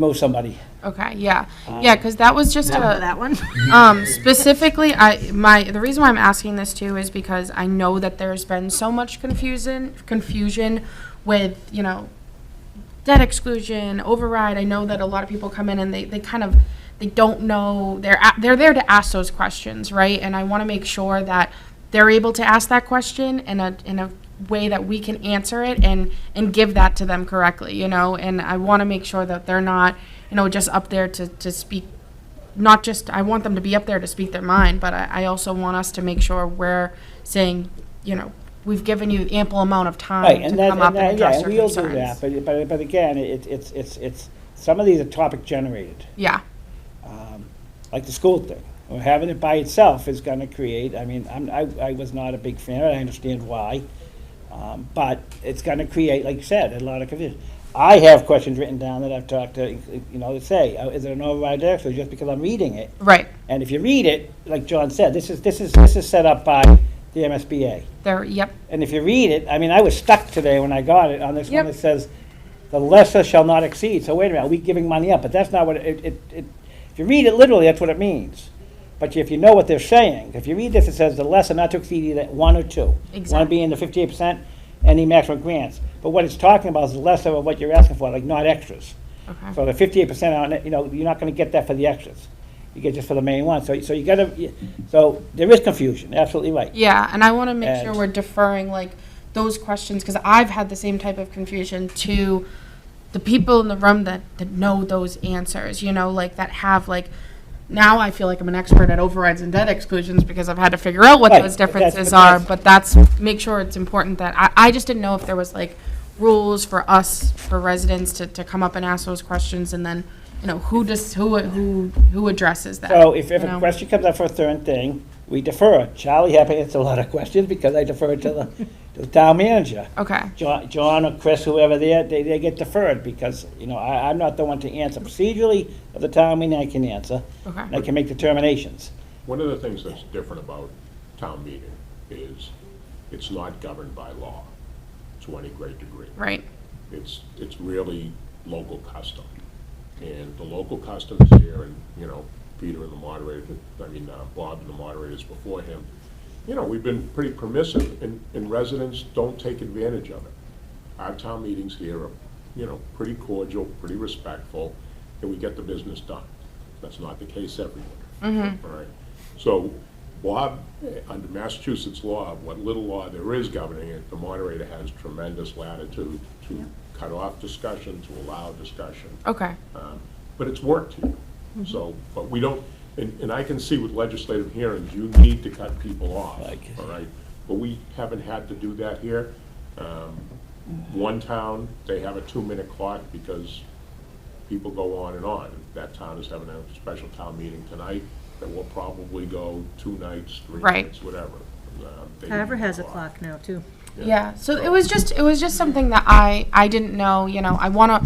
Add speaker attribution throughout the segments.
Speaker 1: know somebody.
Speaker 2: Okay, yeah, yeah, because that was just a,
Speaker 3: Um, That one?
Speaker 2: um, specifically, I, my, the reason why I'm asking this too is because I know that there's been so much confusion, confusion with, you know, debt exclusion, override. I know that a lot of people come in and they, they kind of, they don't know, they're, a- they're there to ask those questions, right? And I want to make sure that they're able to ask that question in a, in a way that we can answer it and, and give that to them correctly, you know? And I want to make sure that they're not, you know, just up there to, to speak, not just, I want them to be up there to speak their mind, but I, I also want us to make sure we're saying, you know, we've given you ample amount of time
Speaker 1: Right,
Speaker 2: to
Speaker 1: and that,
Speaker 2: come up
Speaker 1: and that,
Speaker 2: and
Speaker 1: yeah,
Speaker 2: address
Speaker 1: and
Speaker 2: your
Speaker 1: we'll do
Speaker 2: concerns.
Speaker 1: that, but, but, but again, it, it's, it's, it's, some of these are topic generated,
Speaker 2: Yeah,
Speaker 1: um, like the school thing. Or having it by itself is gonna create, I mean, I'm, I, I was not a big fan, I understand why. Um, but it's gonna create, like you said, a lot of confusion. I have questions written down that I've talked to, you know, that say, uh, is there an override there? So just because I'm reading it,
Speaker 2: right,
Speaker 1: and if you read it, like John said, this is, this is, this is set up by the MSBA.
Speaker 2: there, yep,
Speaker 1: And if you read it, I mean, I was stuck today when I got it on this one
Speaker 2: Yep.
Speaker 1: that says, "The lesser shall not exceed." So wait a minute, are we giving money up? But that's not what it, it, it, if you read it literally, that's what it means. But if you know what they're saying, if you read this, it says the lesser not to exceed either one or two. One
Speaker 2: Exact-
Speaker 1: being the fifty-eight percent and the maximum grants. But what it's talking about is the lesser of what you're asking for, like not extras.
Speaker 2: okay.
Speaker 1: So the fifty-eight percent on it, you know, you're not gonna get that for the extras. You get just for the main one. So, so you gotta, you- so there is confusion, absolutely right.
Speaker 2: Yeah, and I want to make sure
Speaker 1: And-
Speaker 2: we're deferring like those questions because I've had the same type of confusion to the people in the room that, that know those answers, you know, like that have like, now I feel like I'm an expert at overrides and debt exclusions because I've had to figure out what
Speaker 1: Right,
Speaker 2: those
Speaker 1: but that's-
Speaker 2: differences
Speaker 1: but
Speaker 2: are,
Speaker 1: that's-
Speaker 2: but that's, make sure it's important that, I, I just didn't know if there was like rules for us, for residents to, to come up and ask those questions and then, you know, who does, who, who, who addresses that?
Speaker 1: So if, if
Speaker 2: you
Speaker 1: a
Speaker 2: know?
Speaker 1: question comes up for a third thing, we defer. it. Charlie had to answer a lot of questions because I deferred to the, to the town manager.
Speaker 2: Okay,
Speaker 1: John, John or Chris, whoever they are, they, they get deferred because, you know, I, I'm not the one to answer. Procedurally, of the town meeting, I can answer.
Speaker 2: okay.
Speaker 1: And I can make determinations.
Speaker 4: One of the things that's different about town meeting is it's not governed by law to any great degree.
Speaker 2: Right,
Speaker 4: It's, it's really local custom. And the local customs here, and, you know, Peter and the moderator, I mean, uh, Bob and the moderators before him, you know, we've been pretty permissive, and, and residents don't take advantage of it. Our town meetings here are, you know, pretty cordial, pretty respectful, and we get the business done. That's not the case everywhere. All right. So Bob, eh, under Massachusetts law, what little law there is governing it, the moderator has tremendous latitude to cut off discussion, to allow discussion.
Speaker 2: okay.
Speaker 4: Um, But it's worked here. So, but we don't, and, and I can see with legislative hearings, you need to cut people off,
Speaker 1: Like-
Speaker 4: all right? But we haven't had to do that here. Um, One town, they have a two-minute clock because people go on and on. That town is having a special town meeting tonight that will probably go two nights, three
Speaker 2: Right.
Speaker 4: nights, whatever. Um, they
Speaker 3: Carver
Speaker 4: need the
Speaker 3: has a clock now, too.
Speaker 2: Yeah, so it was just, it was just something that I, I didn't know, you know, I wanna,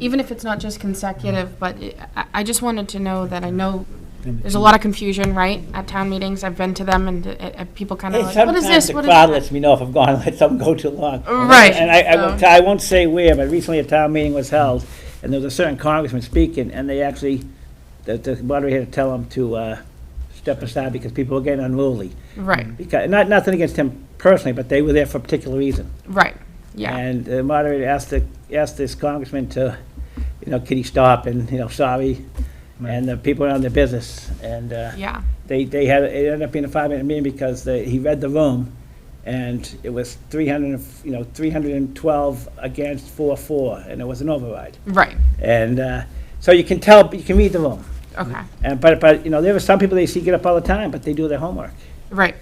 Speaker 2: even if it's not just consecutive, but it- I, I just wanted to know that I know, there's a lot of confusion, right, at town meetings, I've been to them and, uh, uh, people kinda
Speaker 1: And
Speaker 2: like, what is
Speaker 1: sometimes
Speaker 2: this,
Speaker 1: the
Speaker 2: what is
Speaker 1: crowd
Speaker 2: that?
Speaker 1: lets me know if I'm gone, let something go too long.
Speaker 2: Right,
Speaker 1: And I, I won't,
Speaker 2: so-
Speaker 1: I won't say where, but recently a town meeting was held, and there was a certain congressman speaking, and they actually, the, the moderator had to tell him to, uh, step aside because people were getting unruly.
Speaker 2: Right,
Speaker 1: Because, not, nothing against him personally, but they were there for a particular reason.
Speaker 2: right, yeah,
Speaker 1: And the moderator asked the, asked this congressman to, you know, can he stop, and, you know, sorry, and the people went on their business, and, uh,
Speaker 2: yeah,
Speaker 1: they, they had, it ended up being a five-minute meeting because they, he read the room, and it was three hundred, you know, three hundred and twelve against four, four, and it was an override.
Speaker 2: right,
Speaker 1: And, uh, so you can tell, you can read the room.
Speaker 2: okay,
Speaker 1: And, but, but, you know, there were some people they see get up all the time, but they do their homework.
Speaker 2: right,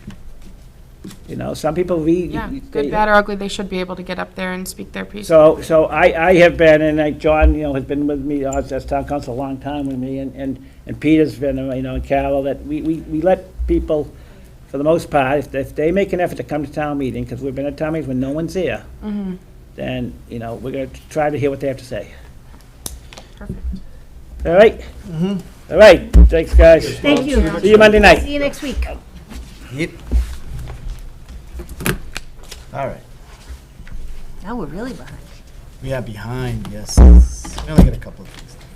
Speaker 1: You know, some people read.
Speaker 2: yeah,
Speaker 1: they-
Speaker 2: good, bad, or ugly, they should be able to get up there and speak their piece.
Speaker 1: So, so I, I have been, and I, John, you know, has been with me uh, as town council a long time with me, and, and, and Peter's been, uh, you know, and Carol, that we, we, we let people, for the most part, if, if they make an effort to come to town meeting, because we've been at town meetings when no one's here, then, you know, we're gonna try to hear what they have to say.
Speaker 2: Perfect.
Speaker 1: All right? Mm-hmm. All right, thanks, guys.
Speaker 3: Thank you.
Speaker 1: See you Monday night.
Speaker 3: See you next week.
Speaker 5: Yep. All right.
Speaker 3: Now we're really behind.
Speaker 5: We are behind, yes. We only got a couple of things.